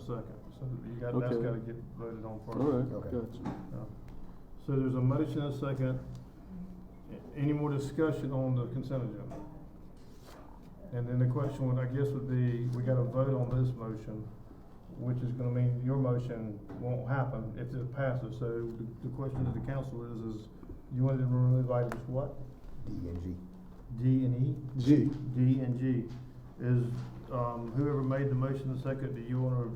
second, so you got, that's Okay. gotta get voted on All first. right, Okay. gotcha. Yeah. So there's a motion and a second. A- Any more discussion on the consent agenda? And then the question would, I guess, would be, we gotta vote on this motion, which is gonna mean your motion won't happen if it passes. So the- the question to the council is, is you wanted to remove items what? D and G. D and E? G, D and G. Is, um, whoever made the motion and second, do you wanna,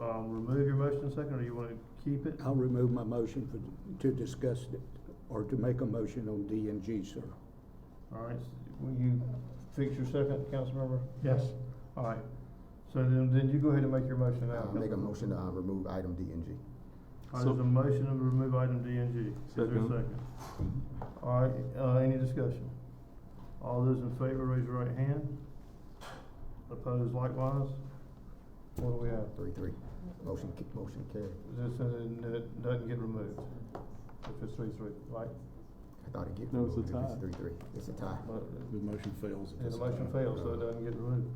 um, remove your motion and second, or you wanna keep it? I'll remove my motion for, to discuss it, or to make a motion on D and G, sir. All right, will you fix your second, Councilmember? Yes. All right, so then, then you go ahead and make your motion now. I'll make a Councilmember. motion to uh, remove item D and G. All right, there's a motion to remove item D and G. Is there a Second. second? All right, uh, any discussion? All those in favor, raise your right hand. Opposed likewise? What do we have? Three, three. Motion, ca- motion carried. This, uh, it doesn't get removed. If it's three, three, right? I thought it get. No, it's a removed if tie. It's three, three. It's a tie. But The motion fails. at the this motion time. fails, so it doesn't get removed.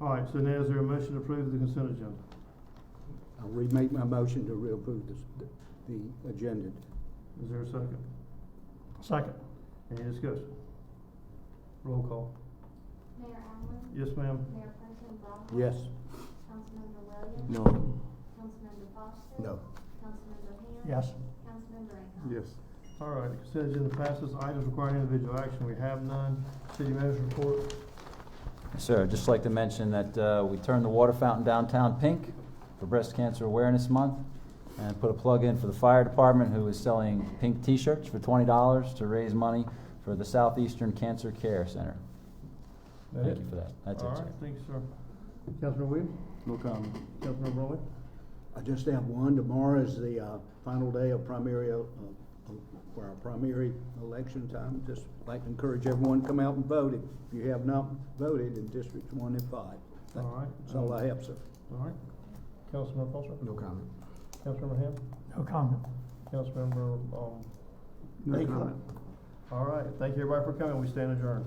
All right, so now is there a motion to approve the consent agenda? I'll remake my motion to reapprove this, the agenda. Is there a second? Second. Any discussion? Roll call. Mayor Allen, Yes, ma'am? Mayor Pro Tem Brown, Yes, Councilmember Williams, no. Councilmember Foster, No. Councilmember Ham, Yes. Councilmember Akon. Yes. All right, consent agenda passes. Items requiring individual action, we have none. City manager report. Sir, I'd just like to mention that uh, we turned the water fountain downtown pink for Breast Cancer Awareness Month, and put a plug in for the fire department, who is selling pink T-shirts for twenty dollars to raise money for the Southeastern Cancer Care Center. That Thank it? you for that. That's it, All right, sir. thank you, sir. Councilman Williams? No comment. Councilman Rowley? I just have one. Tomorrow is the, uh, final day of primary, uh, uh, for our primary election time. Just like to encourage everyone, to come out and vote if you have not voted in districts one and five. All right. That's all I have, sir. All right. Councilman Foster? No comment. Councilmember Ham? No comment. Councilmember, um, Thank you. all right, thank you everybody for coming. We stand adjourned.